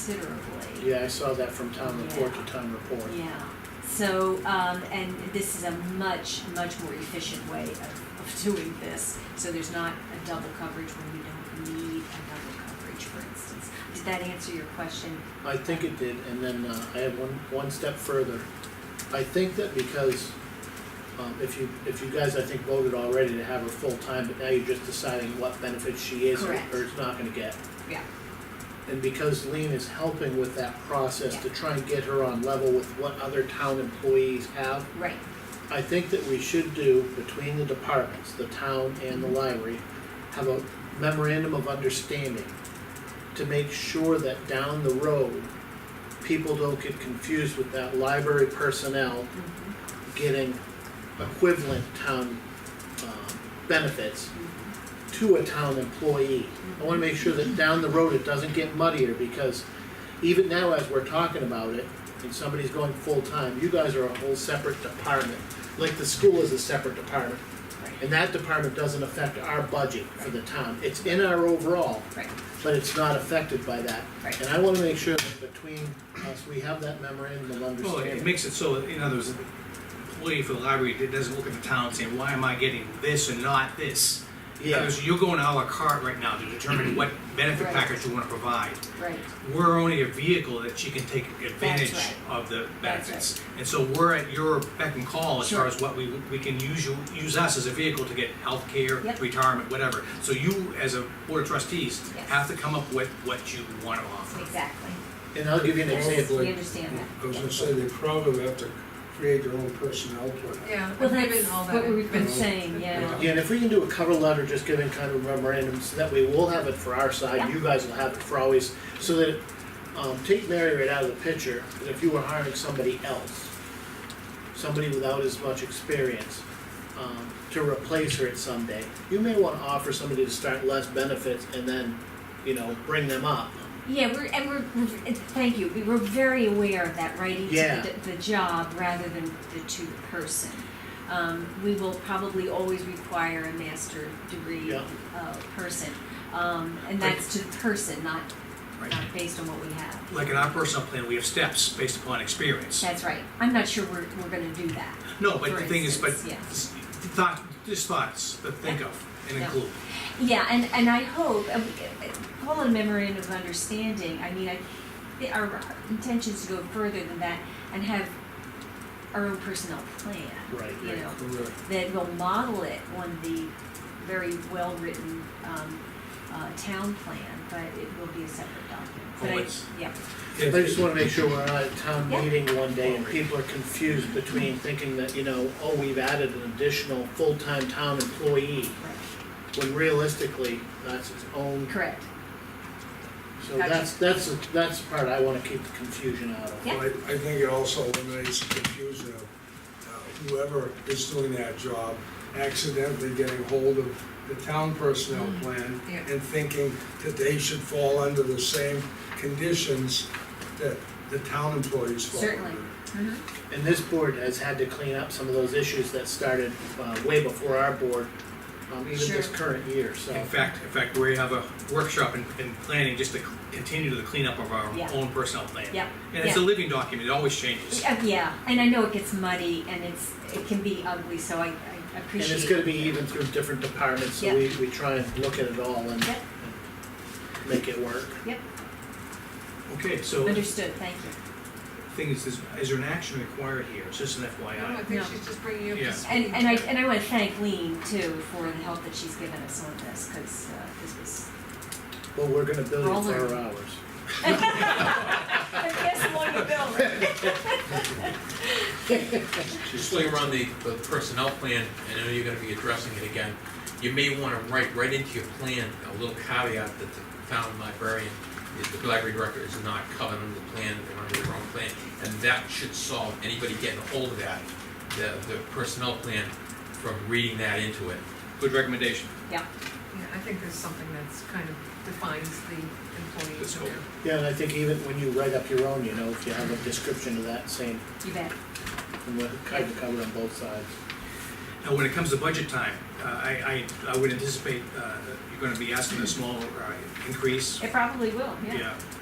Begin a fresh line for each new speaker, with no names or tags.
considerably.
Yeah, I saw that from town report to town report.
Yeah, so, um, and this is a much, much more efficient way of, of doing this, so there's not a double coverage when you don't need a double coverage, for instance. Did that answer your question?
I think it did, and then uh, I have one, one step further. I think that because, um, if you, if you guys, I think, voted already to have her full-time, but now you're just deciding what benefits she is or
Correct.
or is not gonna get.
Yeah.
And because Lean is helping with that process to try and get her on level with what other town employees have,
Right,
I think that we should do between the departments, the town and the library, have a memorandum of understanding to make sure that down the road, people don't get confused with that library personnel
mhm,
getting equivalent town, um, benefits
mhm,
to a town employee. I wanna make sure that down the road it doesn't get muddier, because even now as we're talking about it, and somebody's going full-time, you guys are a whole separate department. Like the school is a separate department,
right,
and that department doesn't affect our budget for the town. It's in our overall,
right,
but it's not affected by that.
Right.
And I wanna make sure that between us, we have that memorandum of
Well, it
understanding.
makes it so, in other words, the employee for the library that doesn't look at the town saying, why am I getting this and not this?
Yeah,
Because you're going à la carte right now to determine what benefit
Right.
package you wanna provide.
right,
We're only a vehicle that she can take advantage
right.
of the
That's
benefits. And so we're at your beck and call as
Sure.
far as what we, we can use you, use us as a vehicle to get healthcare,
Yep.
retirement, whatever. So you, as a board of trustees,
Yes.
have to come up with what you wanna offer.
exactly.
and I'll give you an
Yes,
example.
We understand that.
I was gonna say, they probably have to create their own personnel plan.
Yeah,
Well,
I've been
that's
all
what
that.
we've been saying, yeah.
Yeah, and if we can do a cover letter, just giving kind of memorandum, so that way we'll have it for our
Yeah.
side, you guys will have it for always, so that, um, take Mary right out of the picture, but if you were hiring somebody else, somebody without as much experience, um, to replace her at some day, you may wanna offer somebody to start less benefits and then, you know, bring them up.
Yeah, we're, and we're, we're- and thank you, we were very aware of that, right? Each-
Yeah.
The, the job rather than the to the person. Um, we will probably always require a master degree,
Yeah.
uh, person. Um, and that's to the person, not,
Right.
not based on what we have.
Like in our personal plan, we have steps based upon experience.
That's right, I'm not sure we're, we're gonna do that.
No, but the
For
thing is, but
instance, yeah.
s- thought, just thoughts that think of and
Yeah.
include.
Yeah, and, and I hope, uh, we- uh, call it a memorandum of understanding, I mean, I, the- our intention is to go further than that and have our own personnel plan,
Right,
you
right.
know,
Correct.
that will model it on the very well-written, um, uh, town plan, but it will be a separate document. But I-
Always.
Yeah,
I just wanna make sure we're not at a town
Yeah.
meeting one day and people are confused between thinking that, you know, oh, we've added an additional full-time town employee.
right,
when realistically, that's its own,
correct,
so that's, that's, the- that's the part I wanna keep the confusion out of.
Yeah.
Well, I, I think it also eliminates the confusion of uh, whoever is doing that job accidentally getting hold of the town personnel
Mm-hmm.
plan
yeah.
and thinking that they should fall under the same conditions that the town employees fall under.
certainly. Mhm.
And this board has had to clean up some of those issues that started, uh, way before our board, um, even this
Sure.
current year, so.
In fact, in fact, we have a workshop in, in planning just to c- continue the cleanup of our
Yeah.
own personnel plan.
Yeah,
And it's a
yeah.
living document, it always changes.
Uh, Yeah, and I know it gets muddy and it's, it can be ugly, so I, I
And
appreciate it.
it's gonna be even through different departments, so we, we try and look at it all and
Yeah.
and make it work.
Okay, so,
Understood, thank you.
thing is, is is there an action required here? It's just an
No, I
FYI.
No.
think she's just bringing you up
Yeah.
to speed.
And, and I, and I wanna thank Lean too for the help that she's given us on this, cause, uh, this was.
Well, we're gonna bill you for our
Roller.
hours.
I guess one would
Just while you're on the, the personnel plan, and I know you're gonna be addressing it again, you may wanna write right into your plan a little caveat that the town librarian, is- the library director is not covered under the plan, they're under their own plan, and that should solve anybody getting a hold of that, the, the personnel plan, from reading that into it.
Good recommendation.
Yeah, I think there's something that's kind of defines the
The
employees
scope.
and their
Yeah, and I think even when you write up your own, you know, if you have a description of that same,
You bet.
and we're kind of covered on both sides.
Now, when it comes to budget time, uh, I, I, I would anticipate, uh, that you're gonna be asking a small, uh, increase.
It probably will, yeah.
Yeah,